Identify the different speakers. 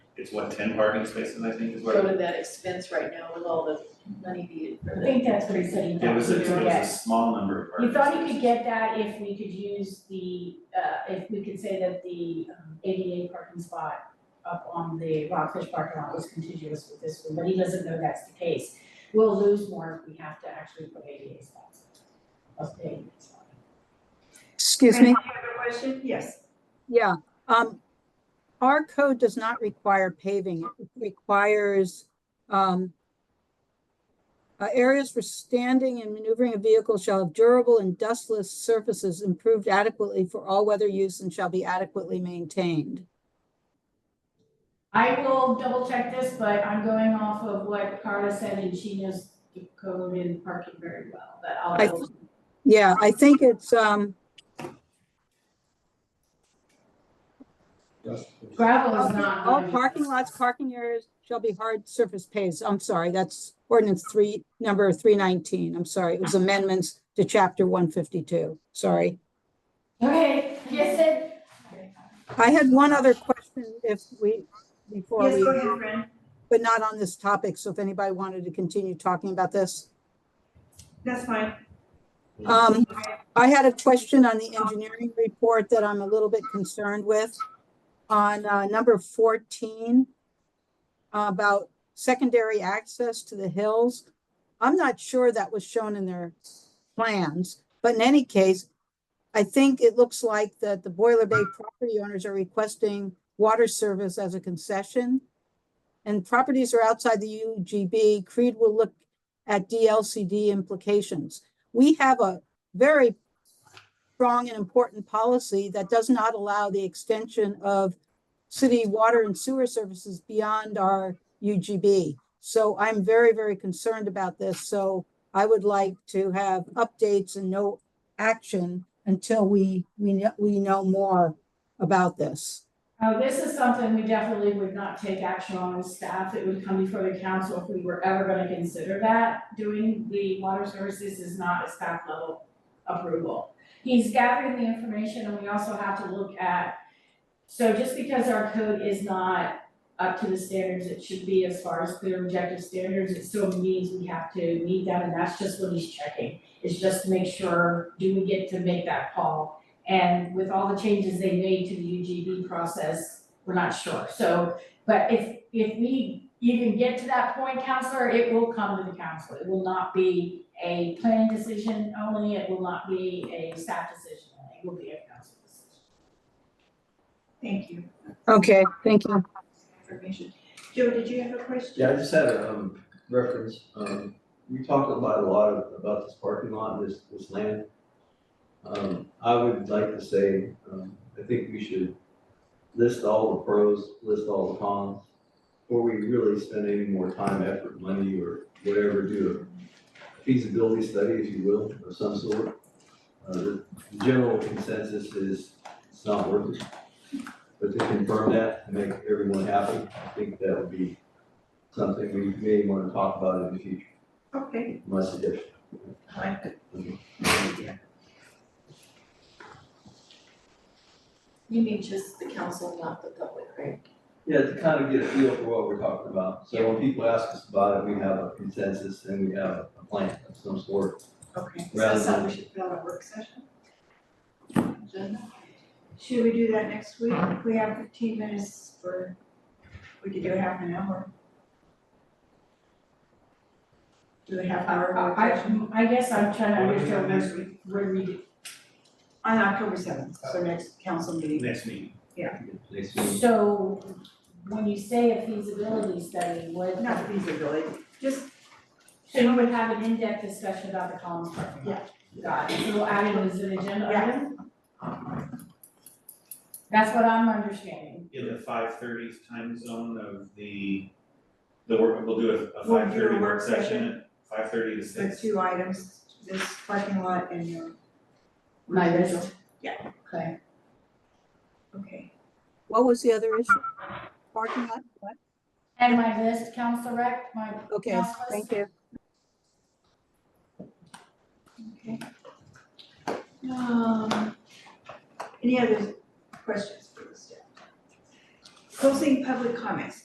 Speaker 1: it's what, ten parking spaces, I think, is what.
Speaker 2: go to that expense right now with all the money needed for
Speaker 3: I
Speaker 2: the.
Speaker 3: think that's what he said he
Speaker 1: It
Speaker 3: thought
Speaker 1: was
Speaker 3: he
Speaker 1: a,
Speaker 3: could
Speaker 1: it was a
Speaker 3: get.
Speaker 1: small number of
Speaker 3: He
Speaker 1: parking
Speaker 3: thought he
Speaker 1: spaces.
Speaker 3: could get that if we could use the, uh, if we could say that the um, ADA parking spot up on the Rockfish parking lot was contiguous with this one, but he doesn't know that's the case. We'll lose more if we have to actually put ADA spots, of ADA spots.
Speaker 4: Excuse
Speaker 5: Can I
Speaker 4: me?
Speaker 5: have a question? Yes.
Speaker 4: Yeah. Um, our code does not require paving. It requires, um, uh, areas for standing and maneuvering a vehicle shall have durable and dustless surfaces improved adequately for all weather use and shall be adequately maintained.
Speaker 3: I will double check this, but I'm going off of what Carla said and she knows the code in parking very well, but I'll
Speaker 4: I-
Speaker 3: double
Speaker 4: Yeah, I think it's, um,
Speaker 3: Gravel is not.
Speaker 4: all
Speaker 3: gonna be-
Speaker 4: parking lots, parking areas shall be hard surface paved. I'm sorry, that's ordinance three, number three nineteen. I'm sorry, it was amendments to chapter one fifty-two. Sorry.
Speaker 3: Okay, yes, it.
Speaker 4: I had one other question if we, before
Speaker 5: Yes,
Speaker 4: we,
Speaker 5: go ahead, Fran.
Speaker 4: but not on this topic, so if anybody wanted to continue talking about this.
Speaker 5: That's fine.
Speaker 4: Um, I had a question on the engineering report that I'm a little bit concerned with. On, uh, number fourteen, about secondary access to the hills. I'm not sure that was shown in their plans, but in any case, I think it looks like that the Boiler Bay property owners are requesting water service as a concession. And properties are outside the UGB, Creed will look at DLCD implications we have a very strong and important policy that does not allow the extension of city water and sewer services beyond our UGB. So I'm very, very concerned about this. So I would like to have updates and no action until we, we, know- we know more about this.
Speaker 3: Uh, this is something we definitely would not take action on as staff. It would come before the council if we were ever gonna consider that. Doing the water services is not a staff level approval. He's gathering the information and we also have to look at, so just because our code is not up to the standards it should be as far as clear and objective standards, it still means we have to meet them and that's just what he's checking. Is just to make sure, do we get to make that call? And with all the changes they made to the UGB process, we're not sure. So, but if, if we even get to that point, counselor, it will come to the council. It will not be a planning decision only. It will not be a staff decision. only. It will be a council decision.
Speaker 5: Thank you
Speaker 4: Okay, thank you.
Speaker 5: for information. Joe, did you have a question?
Speaker 6: Yeah, I just had a um reference, um we talked about a lot of- about this parking lot, this this land. Um I would like to say, um I think we should list all the pros, list all the cons. Before we really spend any more time, effort, money or whatever, do a feasibility study, if you will, of some sort. Uh the general consensus is it's not worth it. But to confirm that, and make everyone happy, I think that would be something we may want to talk about in the future,
Speaker 5: Okay,
Speaker 6: my suggestion.
Speaker 5: fine.
Speaker 2: You mean just the council, not the public, right?
Speaker 6: Yeah, to kind of get a feel for what we're talking about. So when people ask us about it, we have a consensus and we have a plan of some sort.
Speaker 5: Okay, so
Speaker 6: Rather
Speaker 5: that's something we
Speaker 6: than-
Speaker 5: should put on a work session? Agenda? Should we do that next week? We have fifteen minutes for, we could do half an hour. Do a half hour work session
Speaker 3: Uh, I, I guess I'm trying to
Speaker 7: What do we have next
Speaker 3: understand where, where we do.
Speaker 5: on October seventh, so next council meeting.
Speaker 1: Next meeting,
Speaker 6: Next week,
Speaker 3: So when you say a feasibility study, what?
Speaker 5: Not feasibility, just,
Speaker 3: So you would have an in-depth discussion about the Collins Park?
Speaker 5: Yeah.
Speaker 3: Got it, so we'll add it as an agenda
Speaker 5: Yeah.
Speaker 3: item? That's what I'm understanding.
Speaker 1: in the five thirty time zone of the, the work, we'll do a- a
Speaker 5: We'll do a
Speaker 1: five thirty
Speaker 5: work
Speaker 1: work
Speaker 5: session.
Speaker 1: session, five thirty to
Speaker 5: the
Speaker 1: six.
Speaker 5: two items, this parking lot and your.
Speaker 3: My list?
Speaker 5: Yeah.
Speaker 3: Okay.
Speaker 5: Okay,
Speaker 4: What was the other issue? Parking lot? What?
Speaker 3: And my list, Council Rec, my
Speaker 4: Okay, thank you.
Speaker 5: okay. Um, any other questions for the staff? Closing public comments.